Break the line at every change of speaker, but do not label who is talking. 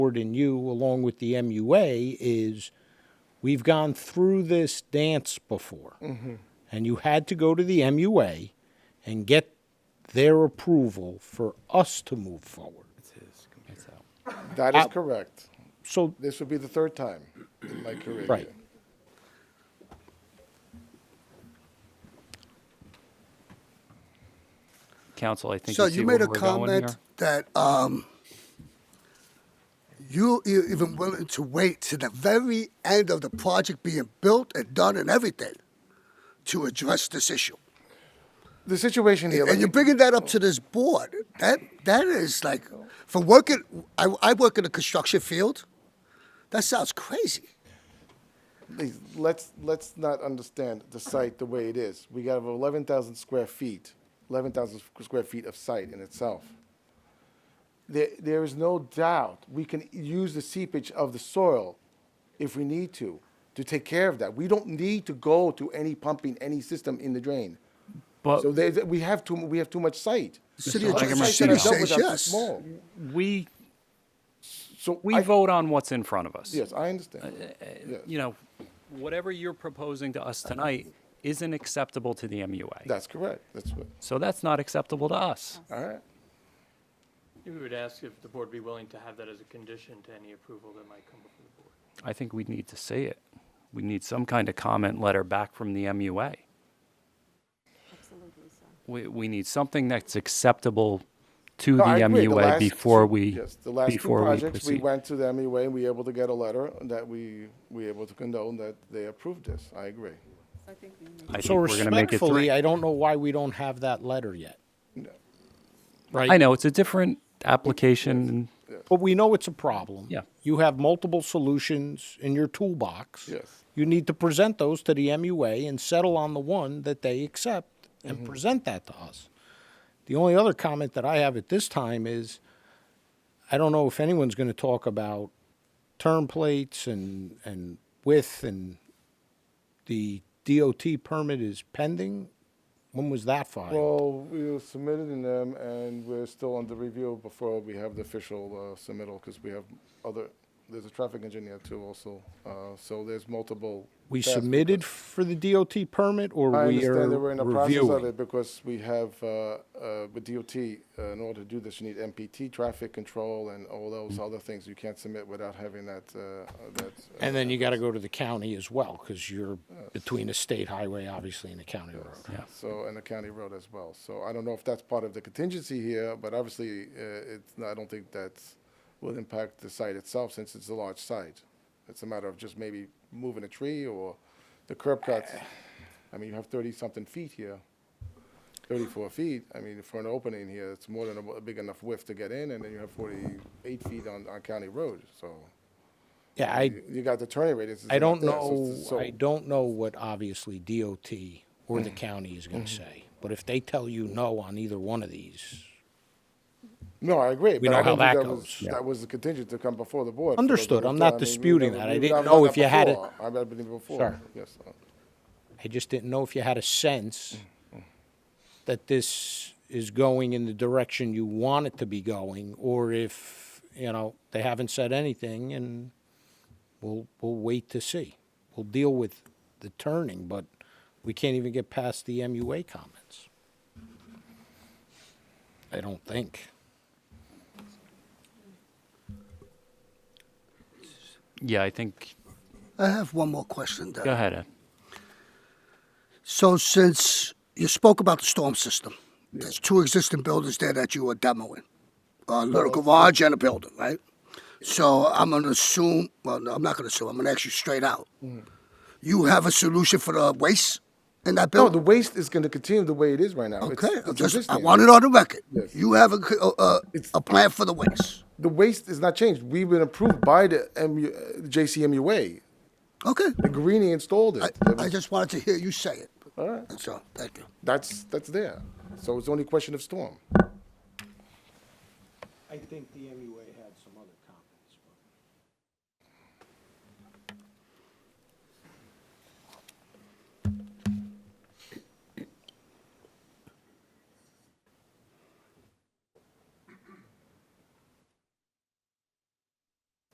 board and you, along with the MUA, is we've gone through this dance before. And you had to go to the MUA and get their approval for us to move forward.
That is correct.
So,
This would be the third time in my career.
Right.
here.
Council, I think.
So
see
you made
where
a
we're going
comment
here.
that um, you you're even willing to wait to the very end of the project being built and done and everything to address this issue.
The situation here,
And you're
like,
bringing that up to this board. That that is like, for working, I, I work in the construction field. That sounds crazy.
please, let's, let's not understand the site the way it is. We got over 11,000 square feet, 11,000 square feet of site in itself. There, there is no doubt we can use the seepage of the soil if we need to, to take care of that. We don't need to go to any pumping, any system in the drain.
But
So there's, we have too, we have too much site.
City
Our
of
Like a
sites that are built
machine.
city says
with are too
yes.
small.
we
So
we
I-
vote on what's in front of us.
Yes, I understand.
Uh,
Yes.
You know, whatever you're proposing to us tonight isn't acceptable to the MUA.
That's correct. That's what,
so that's not acceptable to us.
all right.
We would ask if the board be willing to have that as a condition to any approval that might come before the board.
I think we need to say it. We need some kind of comment letter back from the MUA.
Absolutely so.
We, we need something that's acceptable to
No,
the
I agree. The
MUA
last
before
two-
we
yes, The last two
before we
projects, we
proceed.
went to the MUA and we were able to get a letter that we, we able to condone that they approved this. I agree.
I think we need
I think
so
we're going to make it three.
respectfully, I don't know why we don't have that letter yet. Right?
I know it's a different application. and-
But we know it's a problem.
Yeah.
You have multiple solutions in your toolbox.
Yes.
You need to present those to the MUA and settle on the one that they accept and
Mm-hmm.
present that to us. The only other comment that I have at this time is I don't know if anyone's going to talk about turn plates and, and width and the DOT permit is pending. When was that filed?
Well, we submitted in them and we're still under review before we have the official uh, submittal because we have other, there's a traffic engineer too also. Uh, So there's multiple.
we
tasks.
submitted for the DOT permit or
I
we are
understand that we're in the process
reviewing?
of it because we have, uh, uh, with DOT, uh, in order to do this, you need MPT, traffic control, and all those
Mm.
other things you can't submit without having that, uh, that. uh,
And then you got to go to the county as well, because you're between a state highway, obviously, and a county road.
So, and the county road as well. So I don't know if that's part of the contingency here, but obviously, uh, it's, I don't think that's, will impact the site itself since it's a large site. It's a matter of just maybe moving a tree or the curb cuts. I mean, you have thirty-something feet here, thirty-four feet. I mean, for an opening here, it's more than a, a big enough width to get in, and then you have forty-eight feet on, on county road, so.
Yeah, I,
you- You got the turning radius.
I don't
there, so
know,
it's- so- Mm-hmm.
I don't know what obviously DOT or the county is going to say. But if they tell you no on either one of these,
No, I agree.
We know
but I don't
how
think
that
was-
goes. Yeah.
That was the contingent to come before the board. for those
Understood.
that
I'm
were
not
done. I mean, we
disputing
never-
that. I
we-
didn't
I've
know
done
if
that
you had it-
before. I've done it before.
Sure.
Yes. uh,
I just didn't know if you had a sense
Mm-hmm.
that this is going in the direction you want it to be going, or if, you know, they haven't said anything, and we'll, we'll wait to see. We'll deal with the turning, but we can't even get past the MUA comments. I don't think.
Yeah, I think.
I have one more question. Then.
Go ahead, Ed.
So since you spoke about the storm system, there's two existing buildings there that you are demoing, a little garage and a building, right? So I'm gonna assume, well, no, I'm not gonna assume, I'm gonna ask you straight out.
Hmm.
You have a solution for the waste in that
No, the
building?
waste is going to continue the way it is right now. It's-
Okay,
it's
I'm just- I
existing.
want it on the record.
Yes.
You have a, c- a- a, a plan for the waste.
The waste is not changed. We've been approved by the MU, uh, JCMUA.
Okay,
Greenie installed
I,
it. That
I
was-
just wanted to hear you say it.
All right.
That's all, thank you.
That's, that's there. So it's only a question of storm.
I think the